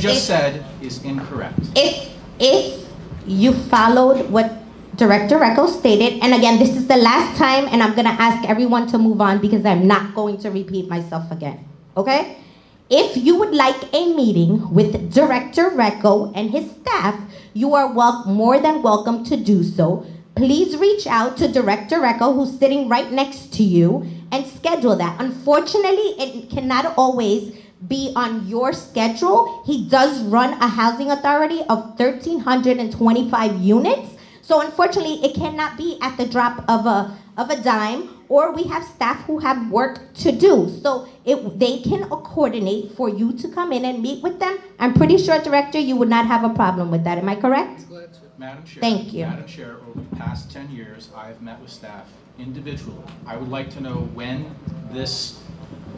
just If- said is incorrect. if if you followed what director Recco stated and again this is the last time and i'm going to ask everyone to move on because i'm not going to repeat myself again okay if you would like a meeting with director Recco and his staff you are wel- more than welcome to do so please reach out to director Recco who's sitting right next to you and schedule that unfortunately it cannot always be on your schedule. He does run a housing authority of 1,325 units. So unfortunately, it cannot be at the drop of a, of a dime, or we have staff who have work to do. So it, they can coordinate for you to come in and meet with them. I'm pretty sure, Director, you would not have a problem with that. Am I correct? Madam Chair. Thank you. Madam Chair, over the past 10 years, I have met with staff individually. I would like to know when this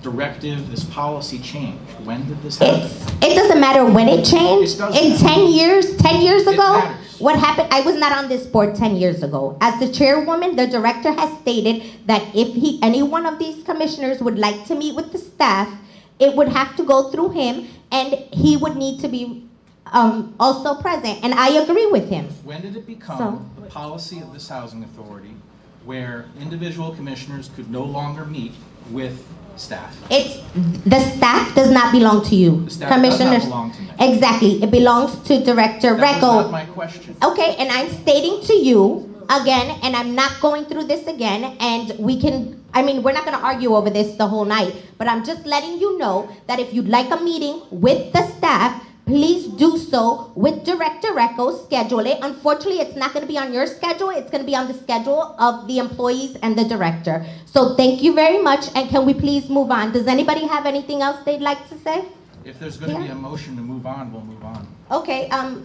directive, this policy changed. When did this happen? It's, it doesn't matter when it changed. It doesn't In matter. 10 years, 10 years It ago, matters. what happened? I was not on this board 10 years ago. As the chairwoman, the director has stated that if he, any one of these commissioners would like to meet with the staff, it would have to go through him and he would need to be um, also present. And I agree with him. When did it So- become the policy of this housing authority where individual commissioners could no longer meet with staff? It's, the staff does not belong to you. The staff does not Commissioners- belong to me. Exactly. It belongs to Director That Recco. was not my question. Okay, and I'm stating to you again, and I'm not going through this again, and we can, I mean, we're not gonna argue over this the whole night, but I'm just letting you know that if you'd like a meeting with the staff, please do so with Director Recco, schedule it. Unfortunately, it's not gonna be on your schedule, it's gonna be on the schedule of the employees and the director. So thank you very much, and can we please move on? Does anybody have anything else they'd like to say? If there's going to be Yeah. a motion to move on, we'll move on. Okay, um,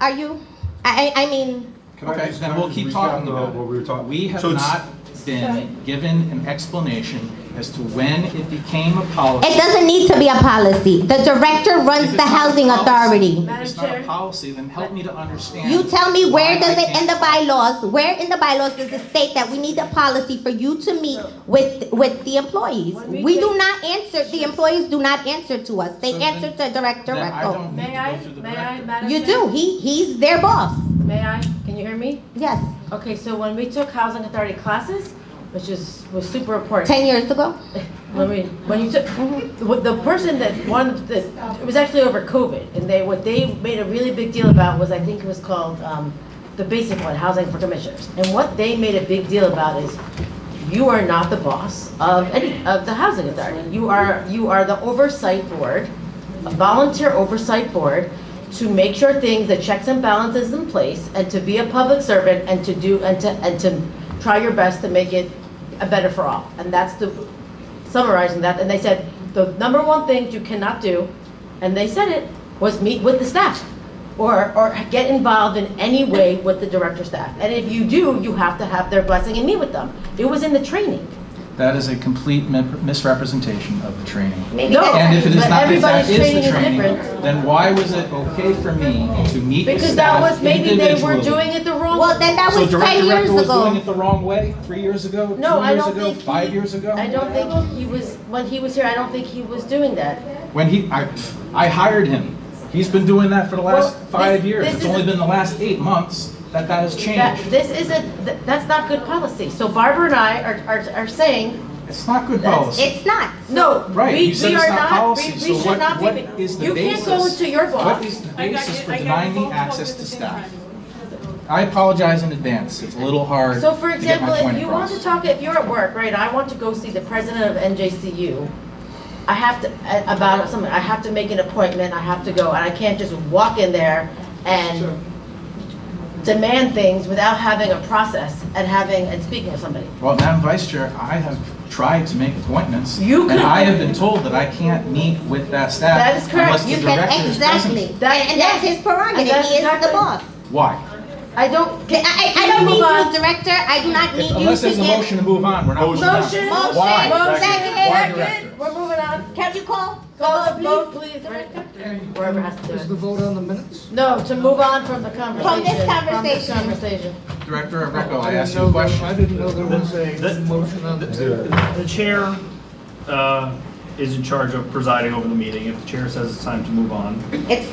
are you, I, I I mean, Can I Okay, just- then can I we'll just keep recap talking the- about it. What we were talking. We have So it's- not been given an explanation as to when it became a policy. It doesn't need to be a policy. The director If runs it's the not a housing policy- authority. If it's not a policy, then help me to understand. You tell me where why does I it, in the can't- bylaws, where in the bylaws does it state that we need a policy for you to meet with, with the employees? We do not answer, the employees do not answer to us. They So then- answer to Director Then I Recco. don't need to May go I, through the may I, director. Madam You Chair? do, he, he's their boss. May I? Can you hear me? Yes, Okay, so when we took housing authority classes, which is, was super important. ten years ago. When we, when you took, the the person that won, the- it was actually over COVID. And they, what they made a really big deal about was, I think it was called, um, the basic one, housing for commissioners. And what they made a big deal about is, you are not the boss of any, of the housing authority. You are, you are the oversight board, a volunteer oversight board, to make sure things, the checks and balances in place, and to be a public servant, and to do, and to, and to try your best to make it a better for all. And that's the, summarizing that, and they said, the number one thing you cannot do, and they said it, was meet with the staff, or, or get involved in any way with the director staff. And if you do, you have to have their blessing and meet with them. It was in the training. That is a complete mi- misrepresentation of the training. Maybe No. that's- And if it is But not, if that everybody's is training the is training, different. then why was it okay for me to meet with Because that staff was, maybe they were individually? doing it the wrong way. Well, then that So was ten Director years Rector was doing ago. it the wrong way, three years ago, two No, I years don't ago, think. he- five years ago? I don't think he was, when he was here, I don't think he was doing that. When he, I, I hired him. He's been doing that for the last Well, five this- years. this It's is- only been the last eight months that that has That, changed. this isn't, th- that's not good policy. So Barbara and I are, are, are saying, It's not good That's- policy. It's not. No, Right, we, you said we it's are not not, we policy, we so what- should not be. what is the You can't go basis? into your What boss. is the I got basis it- for I got denying both me of us access at to the same staff? time. I apologize in advance. It's a little hard So for to get example, my point if you want to across. talk, if you're at work, right, I want to go see the president of NJCU. I have to, a- about something, I have to make an appointment, I have to go, and I can't just walk in there and demand things without having a process and having, and speaking with somebody. Well, Madam Vice Chair, I have tried to make appointments. You And could- I have been told that I can't meet with that staff. That is correct. unless the You But director is present. Exactly. And That- and that's his prerogative. that's He is the exactly- boss. Why? I don't, I, I- I don't Move need on. you, director. I do not If- need you Unless to there's a motion give. to move on, we're not moving on. motion, Motion. Why? motion, Second. Why, second, Director? we're moving on. Can you call? Call the please? vote, please, Director. Whoever has to do Is the it. vote on the minutes? No, to move on from the conversation. From this conversation. conversation. Director Recco, I I didn't asked you know a there- question. I didn't know there was a The- motion on the. The chair uh, is in charge of presiding over the meeting. If the chair says it's time to move on, It's